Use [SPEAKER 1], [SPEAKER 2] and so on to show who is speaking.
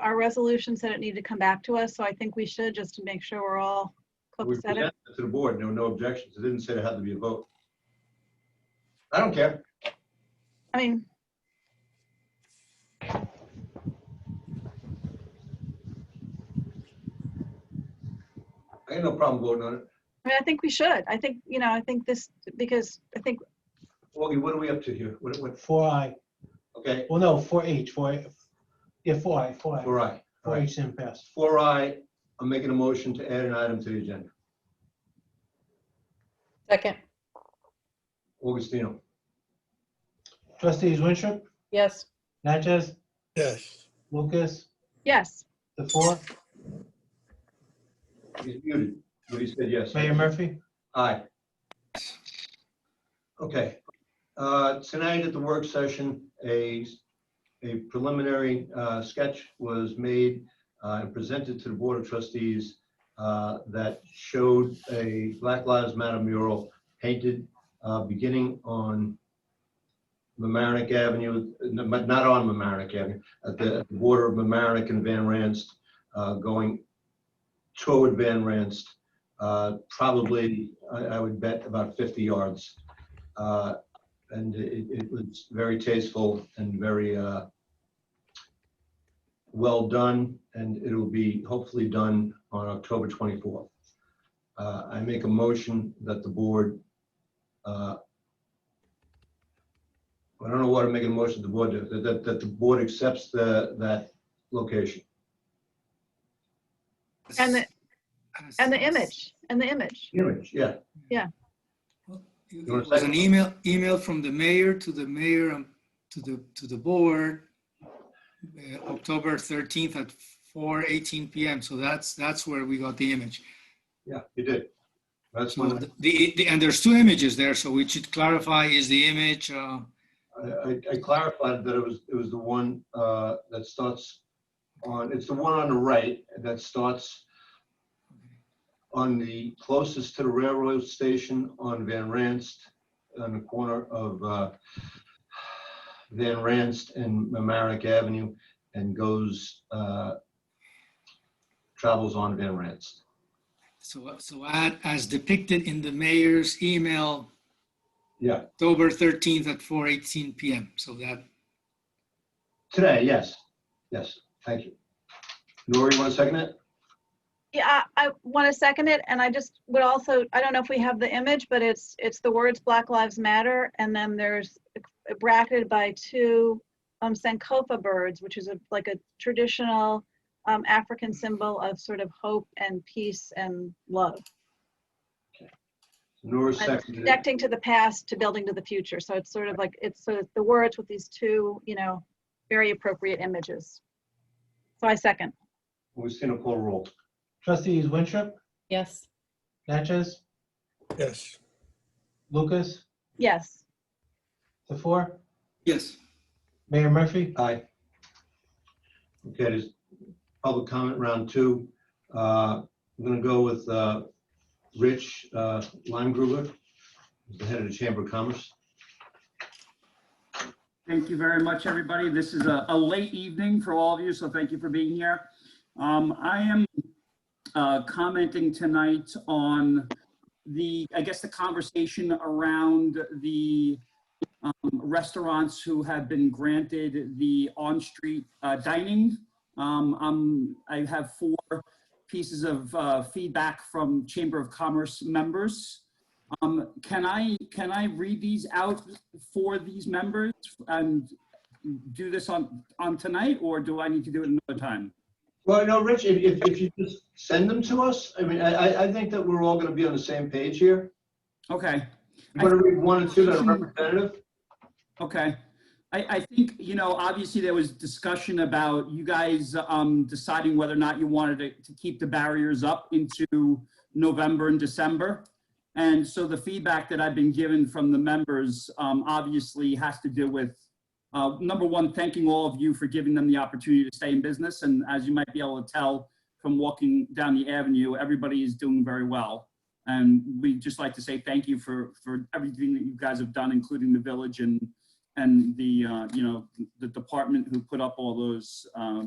[SPEAKER 1] our resolution said it needed to come back to us, so I think we should, just to make sure we're all
[SPEAKER 2] We
[SPEAKER 1] cooked set
[SPEAKER 2] presented
[SPEAKER 1] it.
[SPEAKER 2] it to the board, there were no objections, it didn't say there had to be a vote. I don't care.
[SPEAKER 1] I mean,
[SPEAKER 2] I ain't no problem voting on it.
[SPEAKER 1] I mean, I think we should. I think, you know, I think this, because I think,
[SPEAKER 2] Augie, what are we up to here? What, what,
[SPEAKER 3] Four I,
[SPEAKER 2] okay,
[SPEAKER 3] well, no, four H, four, yeah, four I, four I,
[SPEAKER 2] four I. All
[SPEAKER 3] four
[SPEAKER 2] right.
[SPEAKER 3] H didn't pass.
[SPEAKER 2] Four I, I'm making a motion to add an item to the agenda.
[SPEAKER 4] Second,
[SPEAKER 2] Augustino,
[SPEAKER 3] Trustees Winstrup,
[SPEAKER 4] yes.
[SPEAKER 3] Natchez,
[SPEAKER 5] yes,
[SPEAKER 3] Lucas,
[SPEAKER 1] yes,
[SPEAKER 3] the four,
[SPEAKER 2] he's muted, but he said yes.
[SPEAKER 3] Mayor Murphy.
[SPEAKER 2] Aye. Okay, uh, tonight at the work session, a, a preliminary uh, sketch was made uh, and presented to the Board of Trustees uh, that showed a Black Lives Matter mural painted uh, beginning on Mamaroneck Avenue, no, but not on Mamaroneck Avenue, at the at the border of Mamaroneck and Van Ranst, uh, going toward Van Ranst uh, probably, I I would bet about 50 yards. Uh, And it it was very tasteful and very uh, well done, and it'll be hopefully done on October 24th. Uh, I make a motion that the board, uh, I don't know what I'm making a motion to the board, to- that- that that the board accepts the- that location.
[SPEAKER 1] and the, and the image, and the image.
[SPEAKER 2] Image, yeah.
[SPEAKER 6] It was an email, email from the mayor to the mayor, um, to the, to the board, uh, October 13th at 4:18 PM. So that's, that's where we got the image.
[SPEAKER 2] Yeah, you did. That's
[SPEAKER 6] So
[SPEAKER 2] one.
[SPEAKER 6] the- the, and there's two images there, so we should clarify, is the image, uh,
[SPEAKER 2] I, I- I clarified that it was, it was the one uh, that starts on, it's the one on the right that starts on the closest to the railroad station on Van Ranst, on the corner of uh, Van Ranst and Mamaroneck Avenue and goes, uh, travels on Van Ranst.
[SPEAKER 6] so, so add as depicted in the mayor's email,
[SPEAKER 2] Yeah,
[SPEAKER 6] October 13th at 4:18 PM. So that,
[SPEAKER 2] today, yes, yes, thank you. Nora, you want to second it?
[SPEAKER 1] Yeah, I, I want to second it, and I just would also, I don't know if we have the image, but it's, it's the words Black Lives Matter, and then there's bracketed by two um, Sankofa birds, which is a, like a traditional um, African symbol of sort of hope and peace and love.
[SPEAKER 2] Nora
[SPEAKER 1] And
[SPEAKER 2] seconded it.
[SPEAKER 1] Connecting to the past to building to the future, so it's sort of like, it's sort of the words with these two, you know, very appropriate images. So I second,
[SPEAKER 2] We've seen a poll roll.
[SPEAKER 3] Trustees Winstrup,
[SPEAKER 4] Yes.
[SPEAKER 3] Natchez,
[SPEAKER 5] yes,
[SPEAKER 3] Lucas,
[SPEAKER 1] yes,
[SPEAKER 3] the four,
[SPEAKER 6] yes,
[SPEAKER 3] Mayor Murphy.
[SPEAKER 2] Aye. Okay, there's public comment round two. Uh, I'm going to go with uh, Rich uh, Limegruber, the head of the Chamber of Commerce.
[SPEAKER 7] Thank you very much, everybody. This is a, a late evening for all of you, so thank you for being here. Um, I am uh, commenting tonight on the, I guess, the conversation around the um, restaurants who have been granted the on-street uh, dining. Um, um, I have four pieces of uh, feedback from Chamber of Commerce members. Um, Can I, can I read these out for these members and do this on, on tonight, or do I need to do it another time?
[SPEAKER 2] Well, you know, Rich, if- if if you just send them to us, I mean, I I- I think that we're all going to be on the same page here.
[SPEAKER 7] Okay,
[SPEAKER 2] I'm going to read one and two that are representative.
[SPEAKER 7] okay. I, I think, you know, obviously there was discussion about you guys um, deciding whether or not you wanted to, to keep the barriers up into November and December. And so the feedback that I've been given from the members um, obviously has to do with, uh, number one, thanking all of you for giving them the opportunity to stay in business. And as you might be able to tell from walking down the avenue, everybody is doing very well. And we'd just like to say thank you for, for everything that you guys have done, including the village and, and the, uh, you know, the department who put up all those, um,